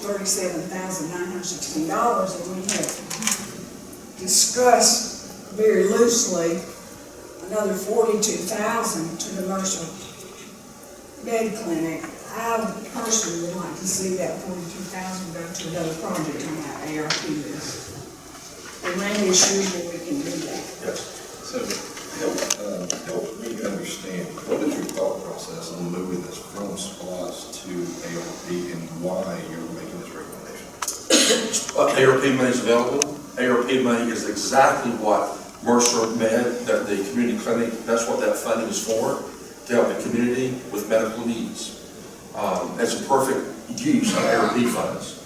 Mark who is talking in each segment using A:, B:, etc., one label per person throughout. A: thirty-seven thousand nine hundred sixteen dollars that we had discussed very loosely, another forty-two thousand to the Mercer Med Clinic. I personally would like to see that forty-two thousand go to another project on that ARP list. And Randy assures me we can do that.
B: So, help, uh, help me understand, what is your thought process on moving this from SPOS to ARP and why you're making this recommendation?
C: Uh, ARP money is available. ARP money is exactly what Mercer Med, that the community clinic, that's what that funding is for, to help the community with medical needs. Um, That's a perfect use of ARP funds.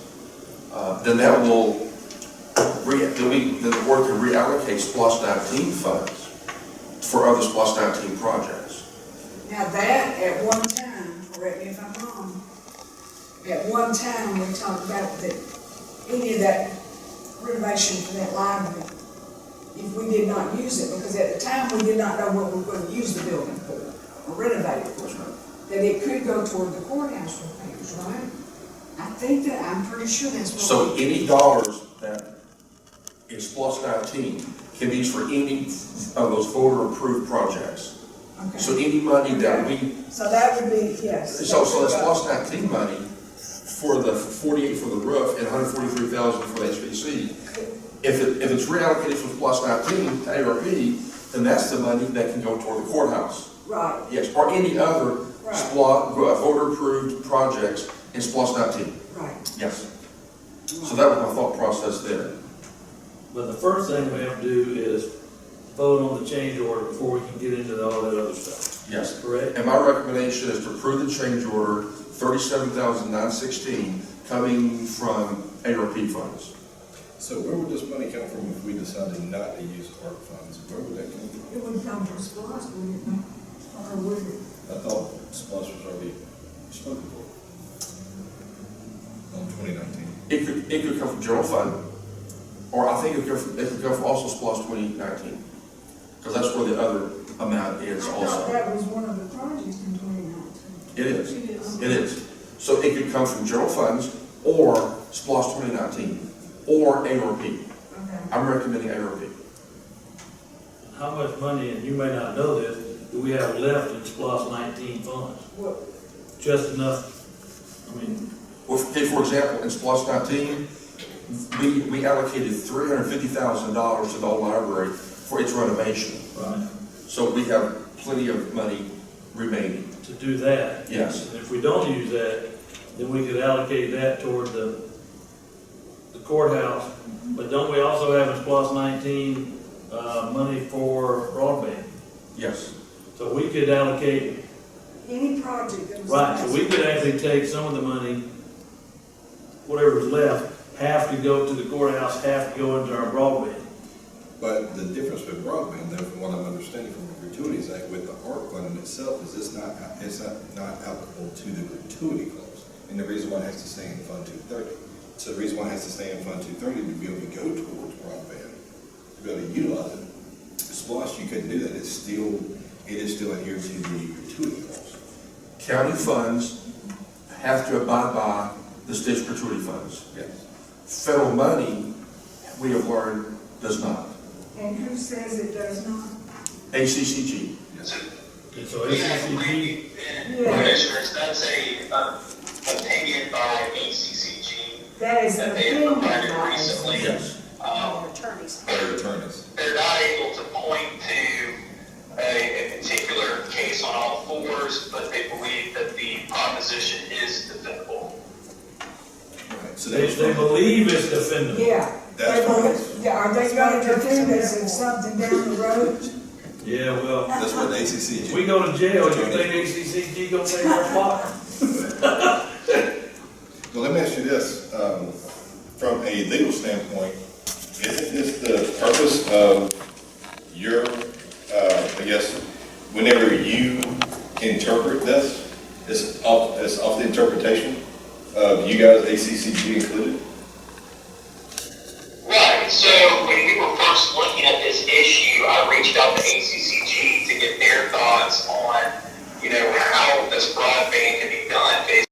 C: Uh, Then that will, re- then we, then the board can reallocate SPOS 19 funds for other SPOS 19 projects.
A: Now that, at one time, correct me if I'm wrong, at one time, we talked about that, any of that renovation for that library, if we did not use it, because at the time, we did not know what we were gonna use the building for, or renovate it for, that it could go toward the courthouse repairs, right? I think that, I'm pretty sure that's what.
C: So any dollars that is plus nineteen can be used for any of those voter-approved projects.
A: Okay.
C: So any money that we,
A: So that would be, yes.
C: so, so that's plus nineteen money for the forty-eight for the roof and hundred forty-three thousand for the HVAC. If it, if it's reallocated from plus nineteen to ARP, then that's the money that can go toward the courthouse.
A: Right,
C: Yes, or any other
A: Right.
C: SPLOS, voter-approved projects in plus nineteen,
A: right.
C: yes. So that was my thought process there.
D: But the first thing we have to do is vote on the change order before we can get into all that other stuff,
C: Yes.
D: correct?
C: And my recommendation is to approve the change order thirty-seven thousand nine sixteen coming from ARP funds.
B: So where would this money come from if we decided not to use ARP funds? Where would that come from?
A: It would come from SPOS, wouldn't it? Or would it?
B: I thought SPOS was already spoken for. On twenty nineteen.
C: It could, it could come from general fund, or I think it could, come- it could come from also SPOS twenty nineteen. Because that's where the other amount
A: I
C: is
A: thought
C: also.
A: that was one of the projects in twenty nineteen.
C: It is, it is. So it could come from general funds or SPOS twenty nineteen, or ARP.
A: Okay.
C: I'm recommending ARP.
D: How much money, and you may not know this, do we have left in SPOS nineteen funds?
A: What,
D: Just enough, I mean,
C: Well, okay, for example, in SPOS nineteen, we, we allocated three hundred fifty thousand dollars to the old library for its renovation.
D: right,
C: So we have plenty of money remaining.
D: to do that.
C: Yes.
D: And if we don't use that, then we could allocate that toward the the courthouse. But don't we also have in SPOS nineteen, uh, money for broadband?
C: Yes.
D: So we could allocate
A: any project that was.
D: Right, so we could actually take some of the money, whatever's left, half to go to the courthouse, half to go into our broadband.
B: But the difference with broadband, though, from what I'm understanding from the gratuities act with the ARP fund in itself, is it's not, it's not, not applicable to the gratuity clause. And the reason why it has to stay in Fund two thirty. So the reason why it has to stay in Fund two thirty to be able to go towards broadband, to be able to utilize it. Splosh, you couldn't do that, it's still, it is still adhered to the gratuity clause.
C: County funds have to abide by the state's gratuity funds.
B: Yes.
C: Federal money, we have learned, does not.
A: And who says it does not?
C: ACCG.
B: Yes.
D: And so ACCG,
E: Commissioners, that's a, uh, opinion by ACCG
A: That is an
E: that they have
A: opinion
E: provided
A: by
E: recently.
C: Yes.
E: Um,
B: Their attorneys.
E: they're not able to point to a, a particular case on all fours, but they believe that the proposition is defendable.
B: Right. So
D: they,
B: that's
D: they believe it's defendable.
A: Yeah.
B: That's
A: They will-
B: right.
A: Yeah, are they gonna defend us if something down the road?
D: Yeah, well,
B: That's what the ACC.
D: if we go to jail, you think ACCG gonna take our spot?
B: Well, let me ask you this, um, from a legal standpoint, isn't this the purpose of your, uh, I guess, whenever you interpret this, it's off, it's off the interpretation of you guys, ACCG included?
E: Right, so when we were first looking at this issue, I reached out to ACCG to get their thoughts on, you know, how this broadband can be done based